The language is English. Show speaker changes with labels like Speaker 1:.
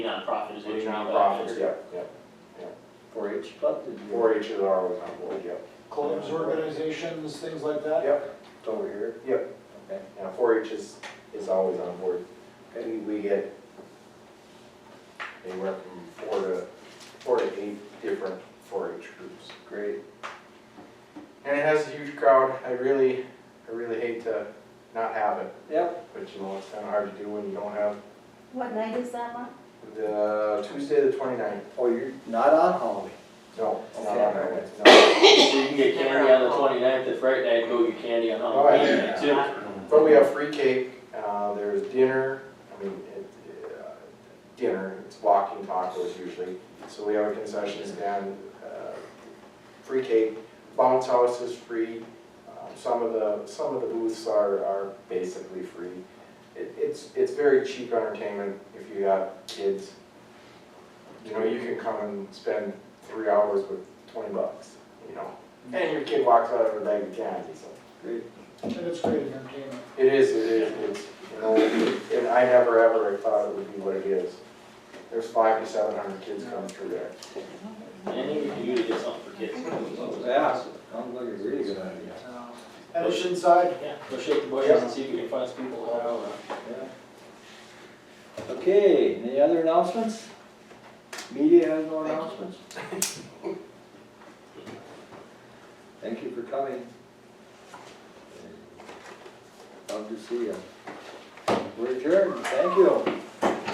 Speaker 1: Nonprofit is what
Speaker 2: Any
Speaker 1: you mean by
Speaker 2: nonprofits,
Speaker 1: that.
Speaker 2: yeah, yeah.
Speaker 3: Four H club, did you,
Speaker 2: Four H is always on board, yeah.
Speaker 4: clubs, organizations, things like that?
Speaker 2: Yep,
Speaker 3: it's over here?
Speaker 2: Yep.
Speaker 3: Okay,
Speaker 2: yeah, four H is, is always on board.
Speaker 3: okay,
Speaker 2: We, we get anywhere from four to, four to eight different four H groups.
Speaker 3: great.
Speaker 2: And it has a huge crowd. I really, I really hate to not have it,
Speaker 3: Yep,
Speaker 2: but you know, it's kind of hard to do when you don't have
Speaker 5: What night is that, Mark?
Speaker 2: the Tuesday the twenty-ninth.
Speaker 3: oh, you're not on Halloween,
Speaker 2: No, it's not
Speaker 3: Okay.
Speaker 2: on that way. No.
Speaker 1: So you can get candy on the 29th. if Friday night, go get candy on
Speaker 2: Oh,
Speaker 1: Halloween
Speaker 2: yeah.
Speaker 1: too.
Speaker 2: But we have free cake, uh, there's dinner, I mean, it, uh, dinner, it's walking tacos usually. So we have a concession stand, uh, free cake, bounce house is free. Um, Some of the, some of the booths are, are basically free. It, it's, it's very cheap entertainment if you got kids. You know, you can come and spend three hours with twenty bucks, you know? And your kid walks out with a bag of candy, so.
Speaker 3: great.
Speaker 4: And it's great entertainment.
Speaker 2: It is, it is, it's, you know, and I never ever thought it would be what it is. There's five to seven hundred kids coming through there.
Speaker 1: Anything you can do to get something for kids.
Speaker 3: Yeah, sounds like a really good idea.
Speaker 4: Um, And it's inside,
Speaker 1: Yeah, go shake the bushes and see if you can find some people to help.
Speaker 3: Yeah. Okay, any other announcements? Media has no announcements? Thank you for coming. Love to see you. We're adjourned, thank you.